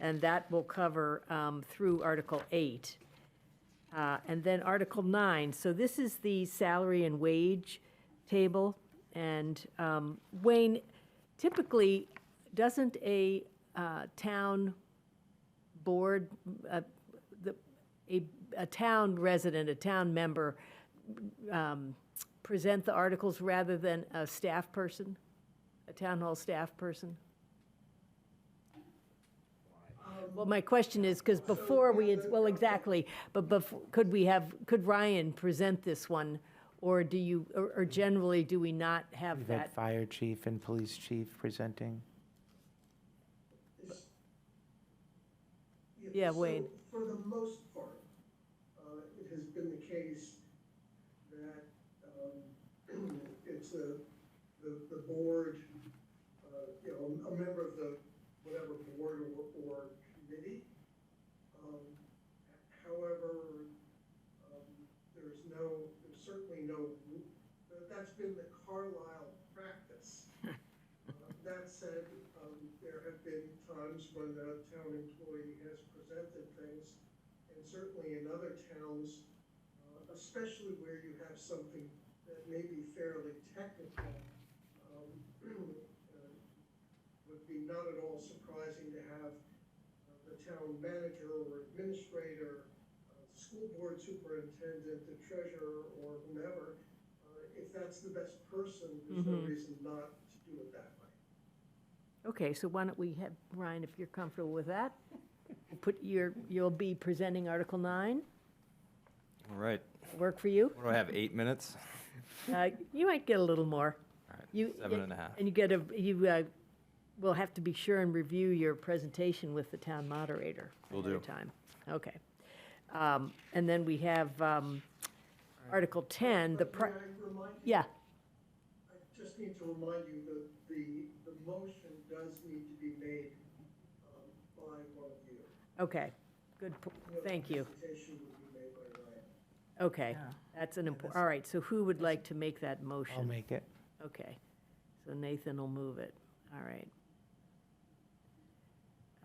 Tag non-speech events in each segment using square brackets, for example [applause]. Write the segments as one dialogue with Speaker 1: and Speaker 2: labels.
Speaker 1: and that will cover um, through Article 8. Uh, And then Article 9, so this is the salary and wage table. And um, Wayne, typically, doesn't a uh, town board, uh, the- a, a town resident, a town member, um, present the articles rather than a staff person? A town hall staff person? Well, my question is, because before we, had- well, exactly, but before, could we have, could Ryan present this one? Or do you, or or generally, do we not have
Speaker 2: We've had
Speaker 1: that?
Speaker 2: fire chief and police chief presenting.
Speaker 1: Yeah,
Speaker 3: so
Speaker 1: Wade.
Speaker 3: For the most part, uh, it has been the case that um, [clears throat] it's the, the the board, uh, you know, a member of the, whatever board or- or committee. Um, However, um, there's no, there's certainly no, that- that's been the Carlisle practice. Uh, That said, um, there have been times when the town employee has presented things, and certainly in other towns, uh, especially where you have something that may be fairly technical, um, [clears throat] uh, would be not at all surprising to have uh, the town manager or administrator, uh, school board superintendent, the treasurer, or whomever, uh, if that's the best person, there's no
Speaker 1: Mhm.
Speaker 3: reason not to do it that way.
Speaker 1: Okay, so why don't we have, Ryan, if you're comfortable with that, put your, you'll be presenting Article 9,
Speaker 4: All right,
Speaker 1: work for
Speaker 4: [laughs]
Speaker 1: you?
Speaker 4: what do I have, eight minutes?
Speaker 1: Uh, You might get a little more.
Speaker 4: All
Speaker 1: You-
Speaker 4: right, seven and a half.
Speaker 1: And you get a, you uh, will have to be sure and review your presentation with the town moderator.
Speaker 4: Will
Speaker 1: ahead of
Speaker 4: do.
Speaker 1: Time, okay. Um, And then we have um, Article 10, the,
Speaker 3: But
Speaker 1: pri-
Speaker 3: may I remind you-
Speaker 1: yeah,
Speaker 3: I just need to remind you that the, the motion does need to be made um, by one of you.
Speaker 1: okay, good, po-
Speaker 3: No
Speaker 1: thank you,
Speaker 3: presentation would be made by Ryan.
Speaker 1: okay. That's an important, all right, so who would like to make that motion?
Speaker 2: I'll make it.
Speaker 1: Okay, so Nathan will move it, all right.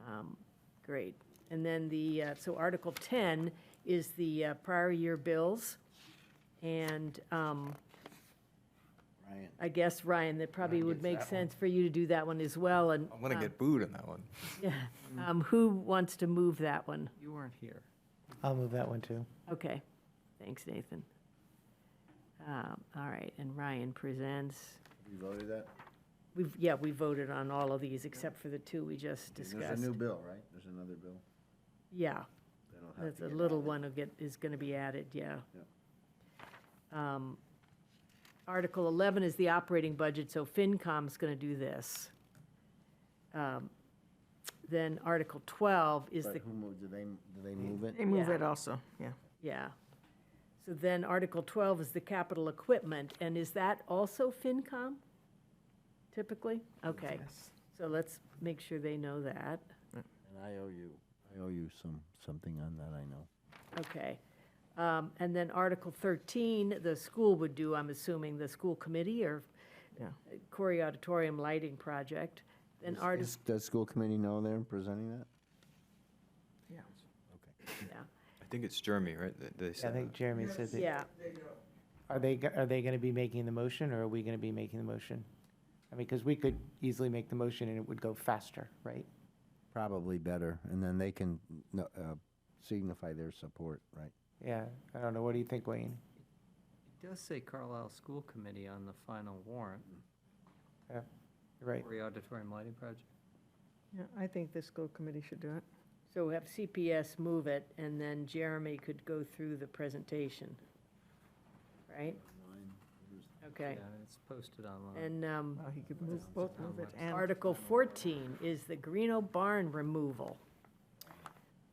Speaker 1: Um, Great, and then the, uh, so Article 10 is the uh, prior year bills, and um,
Speaker 5: Ryan.
Speaker 1: I guess, Ryan, that probably would
Speaker 5: gets
Speaker 1: make
Speaker 5: that one.
Speaker 1: sense for you to do that one as well, and.
Speaker 4: I'm gonna
Speaker 1: um,
Speaker 4: get booed on that one.
Speaker 1: [laughs] yeah.
Speaker 5: Hmm.
Speaker 1: Um, Who wants to move that one?
Speaker 6: You weren't here.
Speaker 2: I'll move that one too.
Speaker 1: Okay, thanks, Nathan. Um, All right, and Ryan presents.
Speaker 5: You voted that?
Speaker 1: We've, yeah, we voted on all of these except for the two we just
Speaker 5: There's a
Speaker 1: discussed.
Speaker 5: new bill, right? There's another bill.
Speaker 1: Yeah,
Speaker 5: that'll have
Speaker 1: that's
Speaker 5: to
Speaker 1: a
Speaker 5: get
Speaker 1: little
Speaker 5: added.
Speaker 1: one will get, is gonna be added, yeah. Um, Article eleven is the operating budget, so FinCom's gonna do this. Um, Then Article twelve is
Speaker 5: But
Speaker 1: the,
Speaker 5: who moved, did they, did they move it?
Speaker 6: They move
Speaker 1: Yeah.
Speaker 6: it also, yeah.
Speaker 1: yeah. So then Article twelve is the capital equipment, and is that also FinCom? Typically? Okay,
Speaker 6: Yes.
Speaker 1: so let's make sure they know that.
Speaker 5: And I owe you, I owe you some, something on that, I know.
Speaker 1: Okay. Um, And then Article 13, the school would do, I'm assuming, the school committee or
Speaker 6: Yeah.
Speaker 1: Corey Auditorium Lighting Project. Then
Speaker 5: Is-
Speaker 1: artist,
Speaker 5: is- Does school committee know they're presenting that?
Speaker 6: Yeah.
Speaker 1: yeah,
Speaker 4: I think it's Jeremy, right, that they
Speaker 2: I
Speaker 4: said
Speaker 2: think
Speaker 4: that?
Speaker 2: Jeremy said that.
Speaker 1: yeah.
Speaker 3: They know.
Speaker 2: Are they, go- are they going to be making the motion or are we going to be making the motion? I mean, because we could easily make the motion and it would go faster, right?
Speaker 5: Probably better, and then they can no- uh, signify their support, right?
Speaker 2: Yeah, I don't know. What do you think, Wayne?
Speaker 7: It does say Carlisle School Committee on the final warrant
Speaker 2: You're Right.
Speaker 7: for the auditorium lighting project.
Speaker 6: Yeah, I think the school committee should do it.
Speaker 1: So we have CPS move it, and then Jeremy could go through the presentation, right? Okay.
Speaker 7: Yeah, It's posted online.
Speaker 1: And um,
Speaker 6: Well, he could move, both move it and.
Speaker 1: Article 14 is the Greeno barn removal.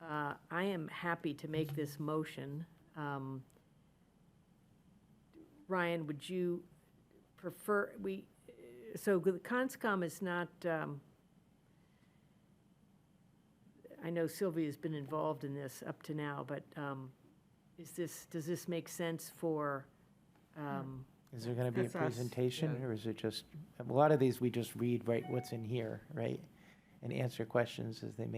Speaker 1: Uh, I am happy to make this motion. Um, Ryan, would you prefer, we, so the CONSCOM is not, um, I know Sylvia's been involved in this up to now, but um, is this, does this make sense for, um,
Speaker 2: Is there going to be a
Speaker 6: That's us,
Speaker 2: presentation
Speaker 7: yeah.
Speaker 2: or is it just, a lot of these we just read, right, what's in here, right? And answer questions as they make